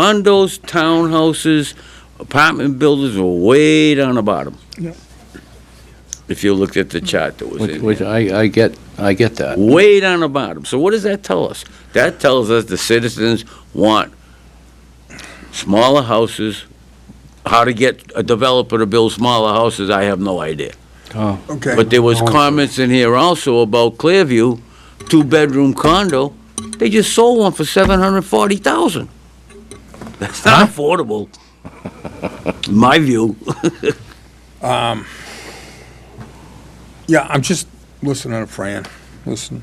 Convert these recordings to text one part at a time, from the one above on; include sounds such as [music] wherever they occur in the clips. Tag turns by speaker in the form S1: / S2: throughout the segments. S1: Condos, townhouses, apartment buildings were way down the bottom.
S2: Yep.
S1: If you looked at the chart that was
S3: Which,
S1: in
S3: which
S1: there.
S3: I, I get, I get that.
S1: Way down the bottom. So what does that tell us? That tells us the citizens want smaller houses. How to get a developer to build smaller houses, I have no idea.
S3: Oh,
S2: Okay.
S1: But there was comments in here also about Clearview, two-bedroom condo, they just sold one for seven hundred forty thousand. That's not affordable, in my view.
S2: Yeah, I'm just listening to Fran, listen.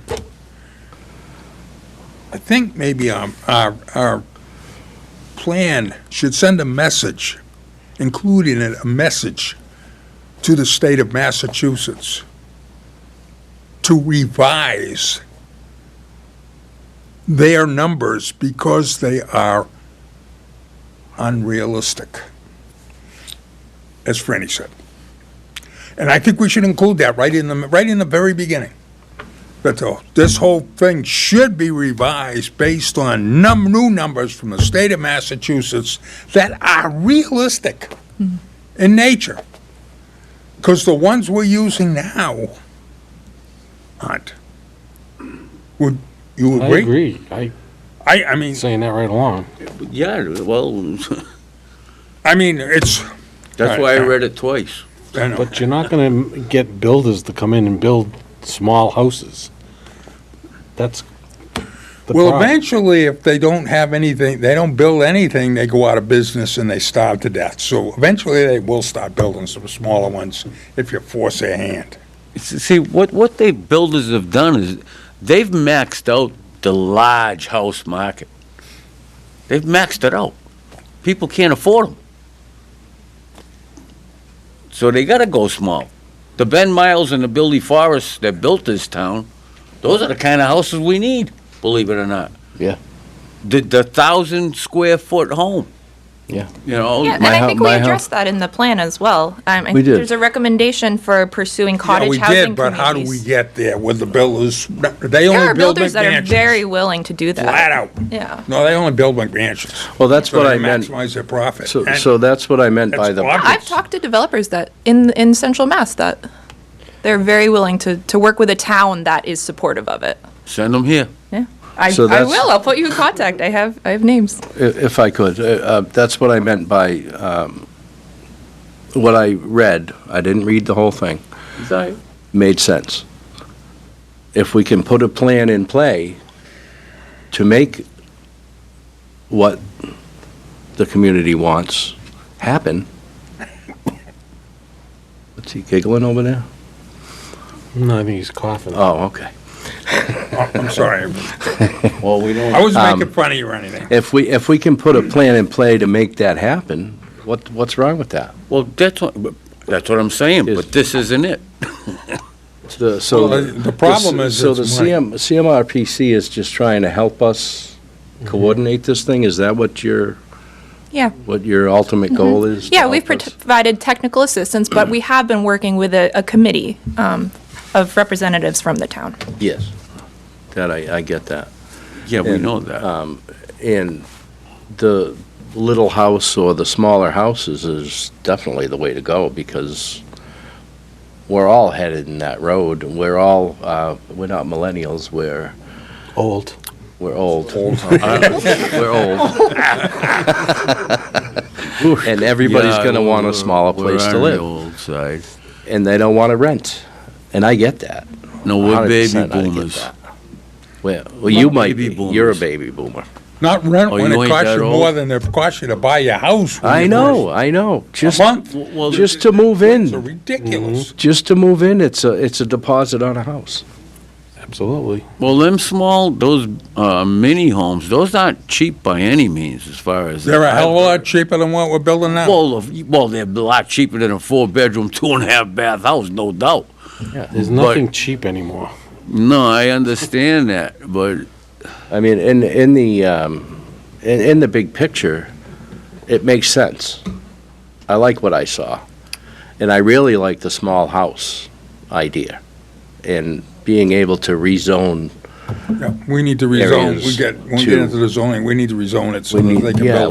S2: I think maybe um, our, our plan should send a message, including it, a message to the state of Massachusetts to revise their numbers because they are unrealistic, as Franny said. And I think we should include that right in the, right in the very beginning. That the, this whole thing should be revised based on num, new numbers from the state of Massachusetts that are realistic in nature. Because the ones we're using now aren't. Would you
S4: I
S2: agree?
S4: agree. I
S2: I, I mean,
S4: saying that right along.
S1: [laughs] Yeah, well,
S2: I mean, it's,
S1: that's why I read it twice.
S2: I know,
S4: But you're not going to get builders to come in and build small houses. That's the
S2: Well,
S4: problem.
S2: eventually, if they don't have anything, they don't build anything, they go out of business and they starve to death. So eventually, they will start building some smaller ones if you force their hand.
S1: See, what, what they builders have done is, they've maxed out the large house market. They've maxed it out. People can't afford them. So they gotta go small. The Ben Miles and the Billy Forrest that built this town, those are the kind of houses we need, believe it or not.
S3: Yeah.
S1: The, the thousand square foot home.
S3: Yeah.
S1: You know?
S5: Yeah, and
S3: My
S5: I
S3: hou-
S5: think we
S3: my hou-
S5: addressed that in the plan as well. Um, I
S3: We
S5: think
S3: did.
S5: There's a recommendation for pursuing
S2: Yeah,
S5: cottage
S2: we
S5: housing
S2: did, but how do we
S5: communities.
S2: get there with the builders? They
S5: There
S2: only
S5: are
S2: build
S5: builders that are very
S2: McMansions.
S5: willing to do that.
S2: Flat out.
S5: Yeah.
S2: No, they only build McMansions.
S3: Well, that's
S2: So
S3: what
S2: they
S3: I meant.
S2: Maximize their profit.
S3: So,
S2: And
S3: so that's what I meant by
S2: that's
S3: the,
S2: obvious.
S5: I've talked to developers that, in, in central Mass, that they're very willing to, to work with a town that is supportive of it.
S1: Send them here.
S5: Yeah. I,
S3: So
S5: I
S3: that's-
S5: will, I'll put you in contact. I have, I have names.
S3: i- if I could, uh, uh, that's what I meant by, um, what I read, I didn't read the whole thing, made sense. If we can put a plan in play to make what the community wants happen. [laughs] What's he giggling over there?
S4: No, I think he's coughing.
S3: Oh, okay.
S2: Oh, I'm
S3: [laughs]
S2: sorry.
S1: Well, we don't.
S2: I
S3: um,
S2: wasn't making fun of you or anything.
S3: If we, if we can put a plan in play to make that happen, what, what's wrong with that?
S1: Well, that's what, but that's what I'm saying,
S3: Is-
S1: but this isn't it.
S3: The, so.
S2: Well, the- the problem is
S3: So
S2: it's
S3: the
S2: money.
S3: CM, CMRPC is just trying to help us
S2: Mm-hmm.
S3: coordinate this thing? Is that what your,
S5: Yeah.
S3: what your ultimate goal is? to
S5: Mm-hmm. Yeah, we've
S3: help us?
S5: provided technical assistance, but we have been working with a, a committee um, of representatives from the town.
S3: Yes. That, I, I get that.
S1: Yeah, we
S3: And,
S1: know that.
S3: And the little house or the smaller houses is definitely the way to go because we're all headed in that road. We're all, uh, we're not millennials, we're,
S4: Old.
S3: we're old. [laughs] We're old. And everybody's going to want a smaller place to live. And they don't want to rent. And I get that.
S1: No, we're baby
S3: 100% I get
S1: boomers.
S3: that. Well, well, you
S1: We're
S3: might
S1: baby
S3: be. You're a
S1: boomers.
S3: baby boomer.
S2: Not rent
S1: Oh,
S2: when
S1: you
S2: it
S1: ain't
S2: costs
S1: that
S2: you
S1: old?
S2: more than it costs you to buy your house. when
S3: I
S2: you
S3: know, I know. Just,
S2: month.
S1: Well,
S3: just to move
S2: first- It's
S3: in,
S2: ridiculous.
S3: just to move in, it's a, it's a deposit on a house.
S4: Absolutely.
S1: well, them small, those uh, mini homes, those aren't cheap by any means, as far
S3: Mm-hmm.
S1: as.
S2: They're a hell of a lot cheaper than what we're building now.
S1: Well, of- well, they're a lot cheaper than a four-bedroom, two-and-a-half bath house, no doubt.
S4: There's nothing cheap anymore.
S1: No, I understand that, but
S3: I mean, in, in the, um, in, in the big picture, it makes sense. I like what I saw. And I really like the small house idea and being able to rezone
S2: Yeah, We need to
S3: There
S2: rezone,
S3: is
S2: we get, when we
S3: two.
S2: get into the zoning, we need to rezone it so
S3: We
S2: that
S3: need-
S2: they can
S3: yeah,
S2: build